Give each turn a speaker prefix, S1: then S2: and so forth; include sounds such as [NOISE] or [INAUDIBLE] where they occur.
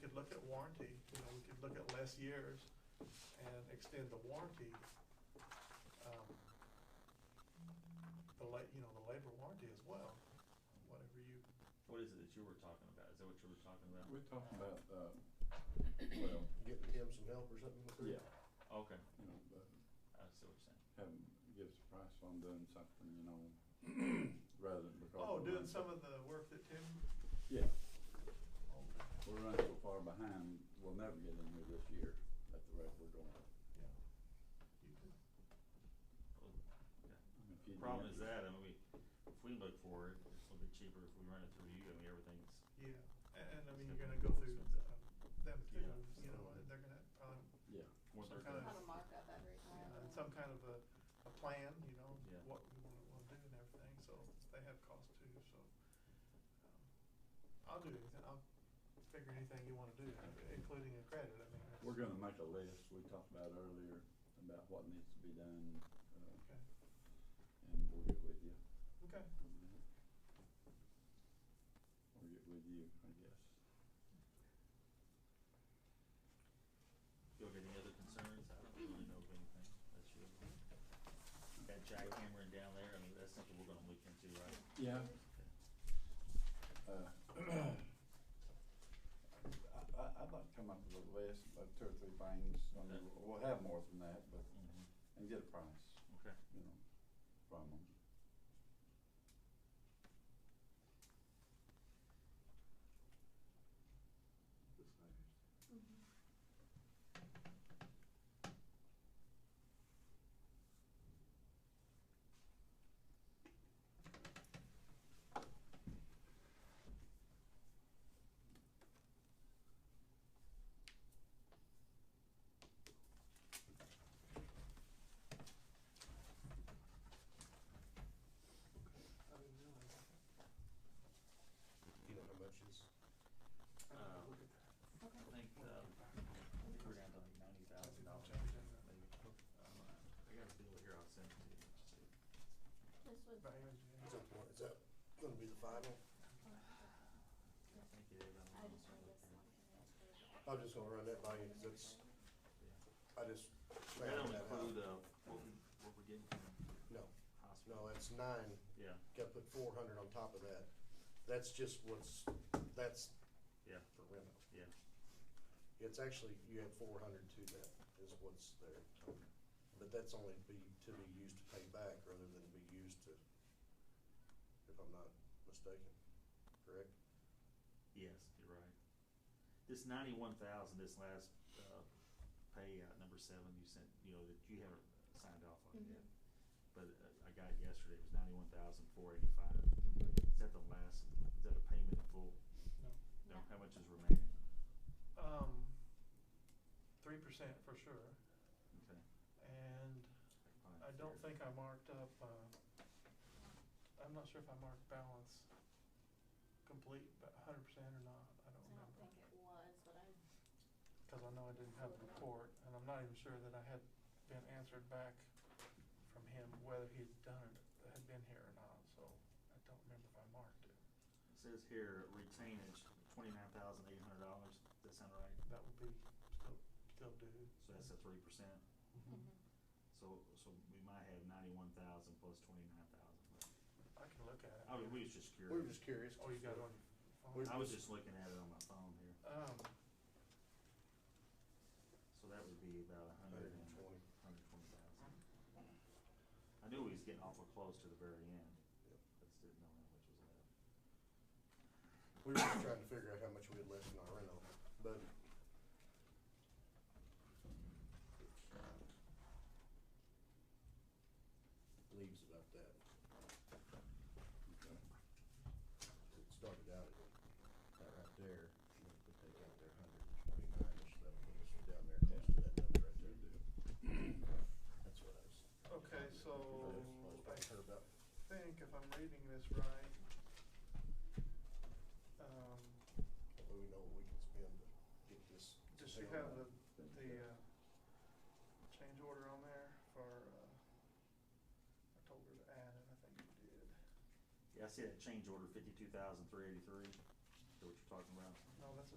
S1: could look at warranty, you know, we could look at less years and extend the warranty. um, The la, you know, the labor warranty as well, whatever you,
S2: What is it that you were talking about? Is that what you were talking about?
S3: We're talking about, uh, well,
S4: Getting him some help or something? with it?
S3: yeah,
S2: Okay,
S3: you know, but
S2: I see what you're saying.
S3: having, give us a price on doing something, you know, rather than because.
S1: oh,
S3: we're
S1: doing
S3: running
S1: some
S3: so-
S1: of the work that Tim,
S3: Yeah,
S1: oh,
S3: we're running so far behind, we'll never get in here this year at the rate we're going.
S1: yeah. You could,
S3: If you
S2: The problem
S3: do-
S2: is that, I mean, we, if we look for it, it's a little bit cheaper if we run it through you, I mean, everything's,
S1: yeah, and, and I
S2: It's
S1: mean,
S2: gonna
S1: you're gonna go
S2: be
S1: through
S2: expensive.
S1: uh, them too,
S2: Yeah.
S1: you know, and they're gonna um, probably
S3: Yeah,
S2: one
S1: Some
S2: third
S1: kind
S2: of-
S1: of-
S5: Have a markup every time.
S1: Yeah, and some kind of a, a plan, you know,
S2: Yeah.
S1: what we wanna, wanna do and everything, so they have costs too, so. um, I'll do anything, I'll figure anything you wanna do, including a credit, I mean. that's-
S3: we're gonna make a list, we talked about earlier, about what needs to be done,
S1: Okay,
S3: uh, and we'll get with you.
S1: okay,
S3: We'll get with you, I guess.
S2: You have any other concerns? I don't really know of anything. That's your, that jackhammering down there, I mean, that's something we're gonna look into, right?
S3: Yeah. Uh, [CLEARS THROAT] I, I, I'd like to come up with a list of two or three things, I mean,
S2: Okay.
S3: we'll have more than that, but,
S2: Mhm.
S3: and get a price,
S2: Okay,
S3: you know, from them.
S4: You know how much is?
S2: uh, I think, um, I think we're down to like ninety thousand dollars, maybe. Um, I got a bill here, I'll send it to you. just so you-
S5: This was,
S1: right here,
S4: Is
S1: Jan.
S4: that, the one- is that gonna be the final?
S2: I think it is.
S5: I just read this one.
S4: I'm just gonna run that by you, cause it's, I just
S2: That
S4: found
S2: don't
S4: that
S2: include,
S4: out.
S2: uh, what we, what we're getting from
S4: No, no,
S2: hospital.
S4: that's nine,
S2: Yeah,
S4: gotta put four hundred on top of that. That's just what's, that's.
S2: Yeah.
S4: For rent.
S2: yeah.
S4: It's actually, you add four hundred to that is what's there. But that's only be, to be used to pay back rather than be used to, if I'm not mistaken, correct?
S2: Yes, you're right. This ninety-one thousand, this last, uh, payout number seven you sent, you know, that you haven't signed off on yet. But uh, I got it yesterday, it was ninety-one thousand four eighty-five. Is that the last, is that a payment in full?
S1: No.
S2: No, how much is remaining?
S1: Um, three percent for sure,
S2: Okay.
S1: and
S2: fine,
S1: I don't
S2: fair.
S1: think I marked up, uh, I'm not sure if I marked balance complete, but a hundred percent or not, I don't
S5: I
S1: remember.
S5: don't think it was, but I,
S1: Cause I know I didn't have the report, and I'm not even sure that I had been answered back from him whether he'd done it, had been here or not, so I don't remember if I marked it.
S2: It says here, retainage, twenty-nine thousand eight hundred dollars, does that sound right?
S1: That would be still, still due.
S2: So that's a three percent?
S1: Mm-hmm.
S2: So, so we might have ninety-one thousand plus twenty-nine thousand.
S1: [LAUGHS] I can look at it.
S2: I was, we was just
S4: We were
S2: curious.
S4: just curious.
S1: Oh, you got it on your phone?
S4: We're-
S2: I was just looking at it on my phone here.
S1: Um,
S2: So that would be about a hundred
S4: Hundred
S2: and
S4: and twenty.
S2: hundred and twenty thousand. I knew we was getting awful close to the very end.
S4: Yep.
S2: I just didn't know how much was left.
S4: We were just trying to figure out how much we had left in our rental, but. Leaves about that. It started out at that right there, and then put that down there, hundred and twenty-nine, so that would put us down there close to that number right there. That's what I was.
S1: okay, so
S4: I heard about.
S1: I think if I'm reading this right, um,
S4: That way we know what we can spend to get this.
S1: does she have the, the, uh, change order on there for, uh, I told her to add it, I think you did.
S2: Yeah, I see that change order fifty-two thousand three eighty-three, is that what you're talking about?
S1: No, that's